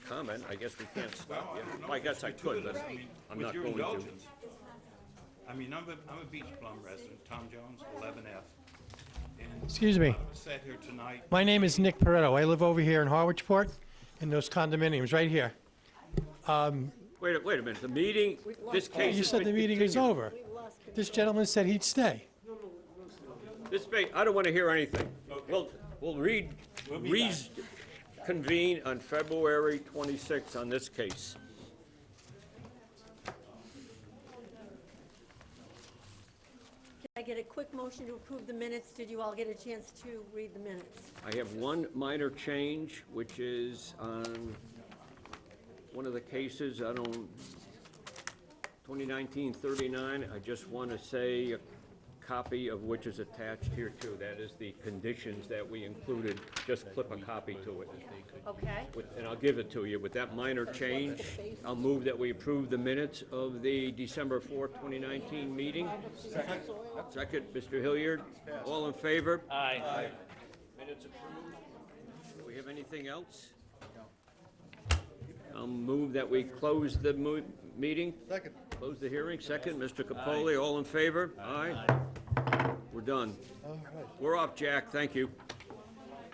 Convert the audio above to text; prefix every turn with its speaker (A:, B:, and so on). A: comment, I guess we can't
B: Well,
A: stop
B: I
A: you.
B: don't know.
A: I guess I could, but
B: I mean,
A: I'm
B: with
A: not
B: your
A: going to.
B: indulgence, I mean, I'm a, I'm a Beach Plum resident, Tom Jones, eleven F. uh,
C: Excuse me.
B: Sat here tonight,
C: My name is Nick Peretto. I live over here in Harwichport, in those condominiums right here.
A: Wait, a- wait a minute, the meeting, this case
C: You
A: has
C: said the
A: been
C: meeting is
A: continued.
C: over. This gentleman said he'd stay.
A: This may, I don't want to hear anything. We'll, we'll read, reconvene on February 26th on this case.
D: I get a quick motion to approve the minutes. Did you all get a chance to read the minutes?
A: I have one minor change, which is on one of the cases, I don't, 2019-39, I just want to say a copy of which is attached here too. That is the conditions that we included, just clip a copy to it.
D: Okay.
A: With- And I'll give it to you. With that minor change, I'll move that we approve the minutes of the December 4th, 2019 meeting. Second. Second, Mr. Hilliard. All in favor? Aye. Minutes approved. Do we have anything else? I'll move that we close the mo- meeting. Second. Close the hearing. Second, Mr. Capoli. All in favor? Aye. We're done. We're off, Jack. Thank you.